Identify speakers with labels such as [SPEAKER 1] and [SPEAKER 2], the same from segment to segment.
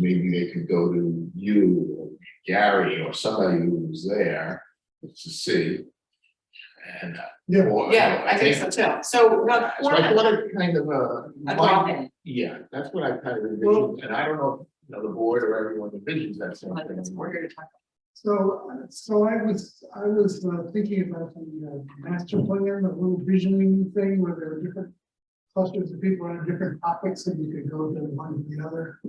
[SPEAKER 1] maybe they could go to you or Gary or somebody who was there to see. And.
[SPEAKER 2] Yeah.
[SPEAKER 1] or-
[SPEAKER 3] Yeah, I think so too. So what
[SPEAKER 1] That's what I
[SPEAKER 3] format,
[SPEAKER 1] what I kind of, uh,
[SPEAKER 3] a
[SPEAKER 1] my-
[SPEAKER 3] drop-in,
[SPEAKER 1] yeah, that's what I kind of
[SPEAKER 2] Well-
[SPEAKER 1] envisioned, and I don't know, if, you know, the board or everyone envisions that same
[SPEAKER 3] like, that's
[SPEAKER 1] thing.
[SPEAKER 3] what we're here to talk
[SPEAKER 2] So, uh, so I was, I was uh, thinking about the uh, master plan, the little visioning thing where there are different clusters of people on different topics and you could go to one to the other.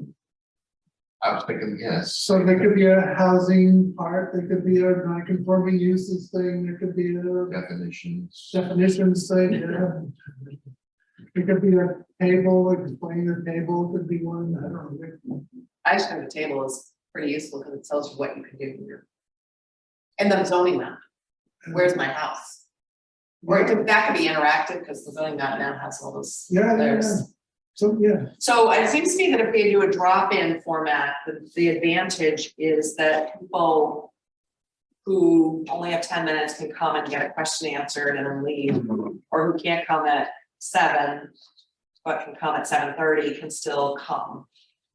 [SPEAKER 1] I was thinking, yes,
[SPEAKER 2] So there could be a housing part, there could be a non-conforming uses thing, there could be a
[SPEAKER 1] definitions.
[SPEAKER 2] definitions thing. yeah. There could be a table, explain the table, could be one, I don't know.
[SPEAKER 3] about. I just think the table is pretty useful because it tells you what you can do here. And then zoning map, where's my house? Or it could, that could be interactive because the zoning map now has all those
[SPEAKER 2] Yeah, yeah, yeah.
[SPEAKER 3] layers.
[SPEAKER 2] So, yeah,
[SPEAKER 3] So it seems to me that if we do a drop-in format, the, the advantage is that people who only have ten minutes can come and get a question answered and then leave. or who can't come at seven, but can come at seven thirty, can still come.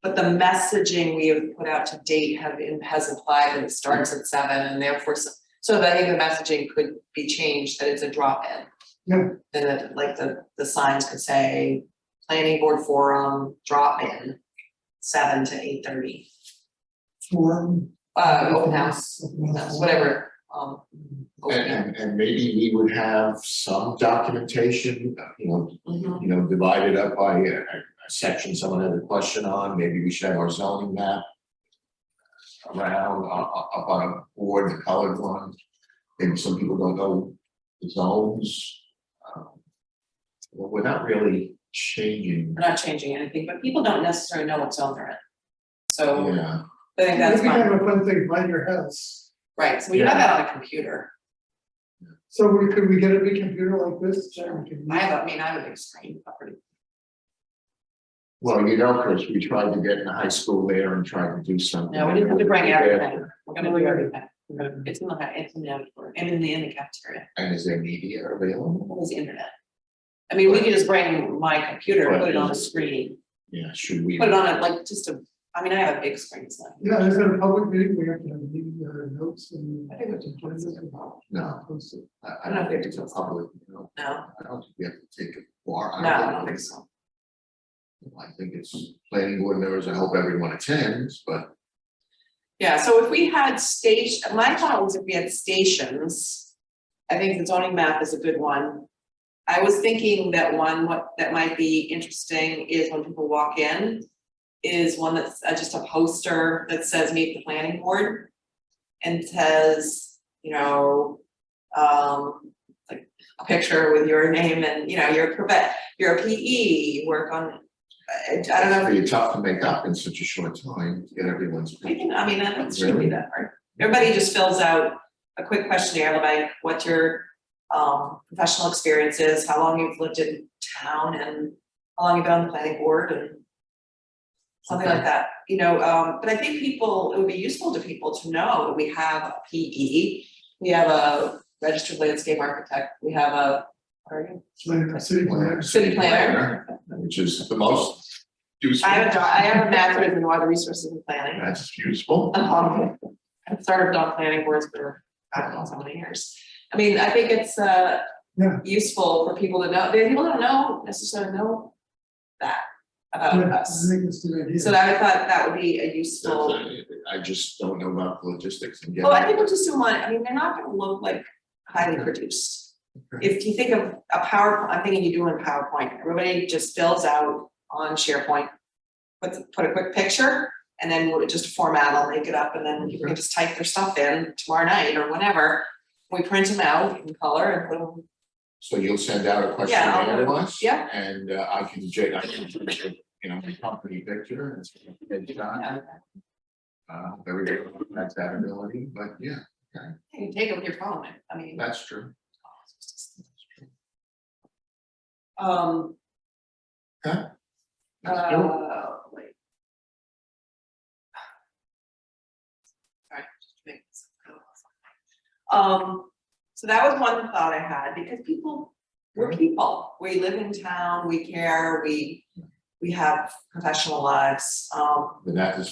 [SPEAKER 3] But the messaging we have put out to date have, in- has implied that it starts at seven and therefore, so so that I think the messaging could be changed, that it's a drop-in.
[SPEAKER 2] Yeah.
[SPEAKER 3] Then it- like the, the signs could say, planning board forum, drop-in, seven to eight thirty,
[SPEAKER 2] form.
[SPEAKER 3] uh, open house, open house, whatever, um. open
[SPEAKER 1] And,
[SPEAKER 3] house.
[SPEAKER 1] and, and maybe we would have some documentation, uh, you know,
[SPEAKER 3] Mhm.
[SPEAKER 1] you know, divided up by a, a section someone had a question on, maybe we should have our zoning map. Around, uh, uh, up on a board, the colored one, maybe some people don't know the zones. um, Well, we're not really changing,
[SPEAKER 3] We're not changing anything, but people don't necessarily know what zone they're in. So
[SPEAKER 1] yeah,
[SPEAKER 3] I think that's
[SPEAKER 2] You can
[SPEAKER 3] fine,
[SPEAKER 2] have a fun thing, by your house.
[SPEAKER 3] right, so we have that on a computer,
[SPEAKER 2] So we, could we get a big computer like this? Sure.
[SPEAKER 3] I have, I mean, I have a big screen, a pretty-
[SPEAKER 1] well, you know, Chris, we tried to get in the high school there and tried to do something.
[SPEAKER 3] no, we didn't have to bring
[SPEAKER 1] Yeah,
[SPEAKER 3] everything, we're gonna do everything. It's in the, it's in the outdoor, and in the, in the cafeteria,
[SPEAKER 1] And is there media available?
[SPEAKER 3] what was the internet? I mean, we could just bring my computer, and put it on a screen,
[SPEAKER 1] Yeah, should we?
[SPEAKER 3] put it on a, like, just a, I mean, I have a big screen, so.
[SPEAKER 2] Yeah, is it a public meeting? We have to have meeting uh, notes and.
[SPEAKER 3] I think we should put this in.
[SPEAKER 1] No,
[SPEAKER 2] Post it.
[SPEAKER 1] I, I don't think it's a public, you know,
[SPEAKER 3] No,
[SPEAKER 1] I don't think we have to take a bar.
[SPEAKER 3] no, I don't think so,
[SPEAKER 1] I think it's planning board members, I hope everyone attends, but
[SPEAKER 3] yeah, so if we had station, my thought was if we had stations. I think the zoning map is a good one. I was thinking that one, what that might be interesting is when people walk in. Is one that's uh, just a poster that says meet the planning board. And says, you know, um, like a picture with your name and, you know, your prof, your P E, work on. I I don't know,
[SPEAKER 1] it'd be tough to make up in such a short time, to get everyone's.
[SPEAKER 3] we can, I mean, that shouldn't be that hard. Everybody just fills out a quick questionnaire about what your um professional experience is, how long you've lived in town and how long you've been on the planning board and something like that, you know, um, but I think people, it would be useful to people to know that we have a P E. We have a registered landscape architect, we have a, what are you?
[SPEAKER 2] Plan, city plan.
[SPEAKER 3] City planner.
[SPEAKER 1] Which is the most useful.
[SPEAKER 3] I have a, I have a master's in water resources and planning.
[SPEAKER 1] That's useful.
[SPEAKER 3] Um, I've started on planning boards for, I don't know, so many years. I mean, I think it's, uh,
[SPEAKER 2] Yeah.
[SPEAKER 3] useful for people to know, they, people don't know, necessarily know that about
[SPEAKER 2] Yeah, I
[SPEAKER 3] us.
[SPEAKER 2] think it's a good idea.
[SPEAKER 3] So I thought that would be a
[SPEAKER 1] That's,
[SPEAKER 3] useful,
[SPEAKER 1] uh, I just don't know about the logistics and
[SPEAKER 3] well, I
[SPEAKER 1] getting,
[SPEAKER 3] think we'll just do one, I mean, they're not gonna look like highly produced.
[SPEAKER 1] Okay.
[SPEAKER 3] If you think of a PowerPoint, I'm thinking you do in PowerPoint, everybody just fills out on SharePoint. Put, put a quick picture and then we'll just format, I'll make it up and then people can just type their stuff in tomorrow night or whenever. We print them out in color and put them,
[SPEAKER 1] so you'll send out a
[SPEAKER 3] Yeah, I'll-
[SPEAKER 1] questionnaire to us?
[SPEAKER 3] yeah.
[SPEAKER 1] And uh, I can, j- I can, you know, the company picture and it's gonna get done.
[SPEAKER 3] yeah,
[SPEAKER 1] Uh, everybody has that ability, but yeah,
[SPEAKER 3] you can take them with your phone, I mean.
[SPEAKER 1] that's true.
[SPEAKER 3] Um,
[SPEAKER 1] That's true.
[SPEAKER 3] uh, wait. Sorry, just make this go off. Um, so that was one thought I had, because people, we're people, we live in town, we care, we, we have professional lives, um.
[SPEAKER 1] But that is